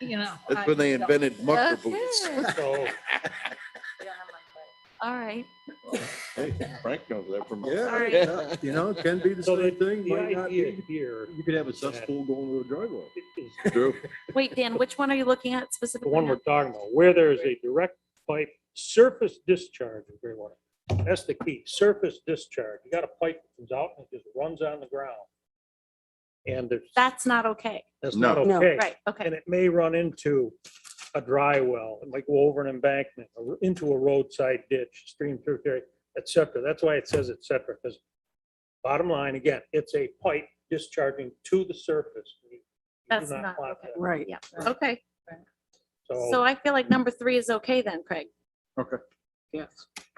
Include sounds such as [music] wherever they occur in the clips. you know. That's I when they don't- invented mucker boots. Okay. So [laughs] All right. Hey, Frank knows that from. Yeah. All right. yeah, You know, it can be the so the same thing. the might not idea be. here You could have a cesspool going to a driveway. is True. Wait, Dan, which one are you looking at the specifically? one we're now? talking about, where there is a direct pipe surface discharge of gray water. That's the key, surface discharge. You got a pipe that comes out and it just runs on the ground. And there's, That's not okay. that's not No. No. okay. Right, okay. And it may run into a dry well, it might go over an embankment, or into a roadside ditch, stream through there, et cetera. That's why it says et cetera, because bottom line, again, it's a pipe discharging to the surface. You do That's not want okay. that. Right. Yeah, okay. So So, I feel like number three is okay then, Craig. Okay. Yes.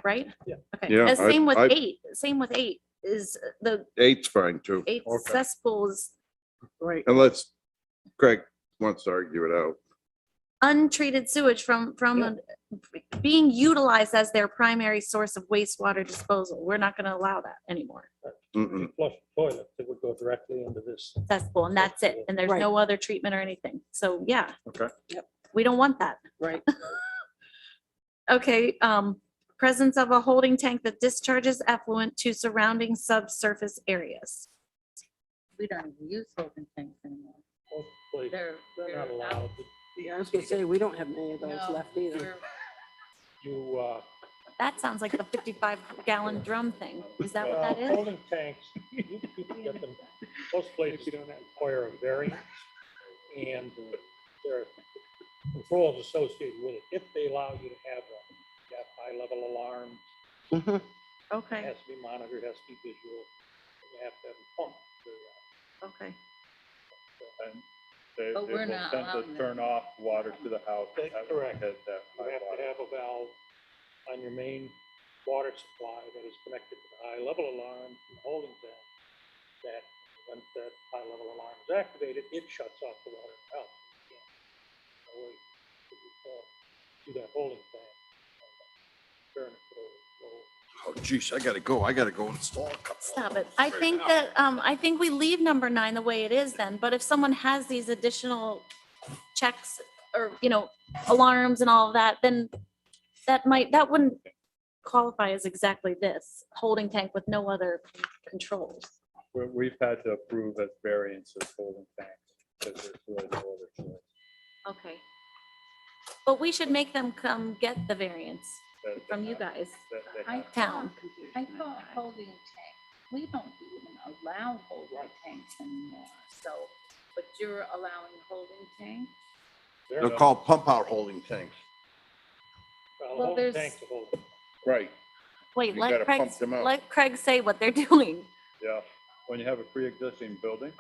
Right? Yeah. Okay. Yeah, And I- same with I- eight, same with eight is uh, the Eight's fine too. eight Okay. cesspools, Right. Unless Craig wants to argue it out. untreated sewage from, from Yeah. a- being utilized as their primary source of wastewater disposal. We're not going to allow that anymore. Mm-mm. flush the toilet, it would go directly into this. cesspool and that's it. And there's Right. no other treatment or anything. So yeah. Okay. Yep. We don't want that. Right. [laughs] Okay, um, presence of a holding tank that discharges effluent to surrounding subsurface areas. We don't even use holding tanks anymore. Most places, They're. They're not they're allowed. out. Yeah, I was gonna say, we don't have many of those No, left either. we're- You, uh. That sounds like the fifty-five gallon drum thing. Is that what uh, that is? Holding [laughs] tanks, you you can get them, most places require a variance and uh, there are controls associated with it. If they allow you to have one, you have high level alarms, Mhm. it Okay, has to be monitored, has to be visual. You have to uh, have a pump. okay. They, they But will we're not tend allowing to that. turn off water to the house. That's that- correct. That, that You high have to water. have a valve on your main water supply that is connected to the high level alarm and holding tank. That, when that high level alarm is activated, it shuts off the water out. Do that holding tank. Turn it over. Oh geez, I gotta go. I gotta go install a couple. Stop it. I think that, um, I think we leave number nine the way it is then, but if someone has these additional checks or, you know, alarms and all of that, then that might, that wouldn't qualify as exactly this, holding tank with no other controls. We, we've had to approve as variances holding tanks because there's really no other choice. Okay. But we should make them come get the variance That- that from you have- guys, that they I have. town. I thought holding tank, we don't even allow holding tanks anymore, so, but you're allowing holding tank? There They're it is. called pump out holding tanks. Well, well, holding there's- tank's a holding tank. Right. Wait, You let gotta Craig, pump them out. let Craig say what they're [laughs] doing. Yeah, when you have a pre-existing building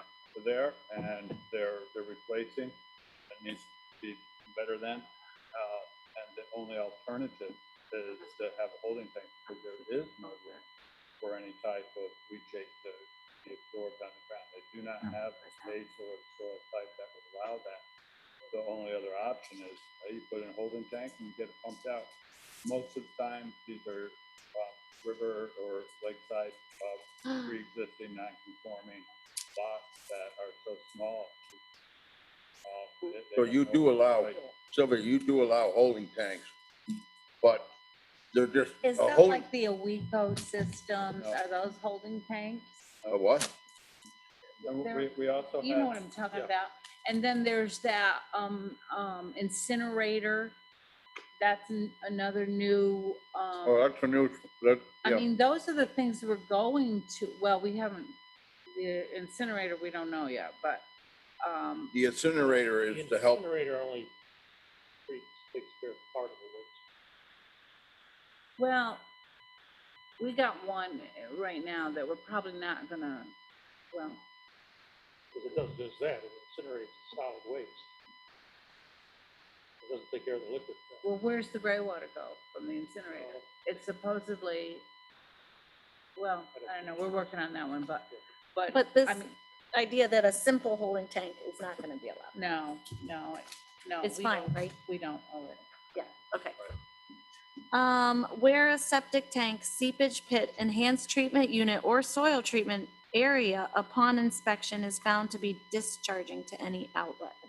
there and they're, they're replacing, it needs to be better than. uh, And the only alternative is to have a holding tank, because there is no room for any type of leachate to be absorbed on the ground. They do not have a space or a soil type that would allow that. The only other option is uh, you put in a holding tank and you get it pumped out. Most of the time, these are uh, river or lakeside uh, pre-existing non-conforming lots that are so small. uh, that they So don't you know do what allow- they- Sylvia, you do allow holding tanks, but they're just Is a that holding, like the Aweco systems, Oh, No. are those holding tanks? a uh, what? And There- We, we also You know what have, I'm talking yeah. about? And then there's that, um, um, incinerator, that's an- another new, um. Oh, that's a new, that, I yeah, mean, those are the things we're going to, well, we haven't, the incinerator, we don't know yet, but, um, the incinerator The is to help. Incinerator only treats, takes care of part of the waste. well, we got one right now that we're probably not gonna, well, Because it does just that, it incinerates the solid waste. It doesn't take care of the liquid. stuff. well, where's the gray water go from the incinerator? It's supposedly, well, I don't know, we're working on that one, but, but, But this I mean, idea that a simple holding tank is not going to be allowed. no, no, no. It's we don't- fine, right? We don't owe it. Okay. Um, where a septic tank, seepage pit, enhanced treatment unit, or soil treatment area upon inspection is found to be discharging to any outlet.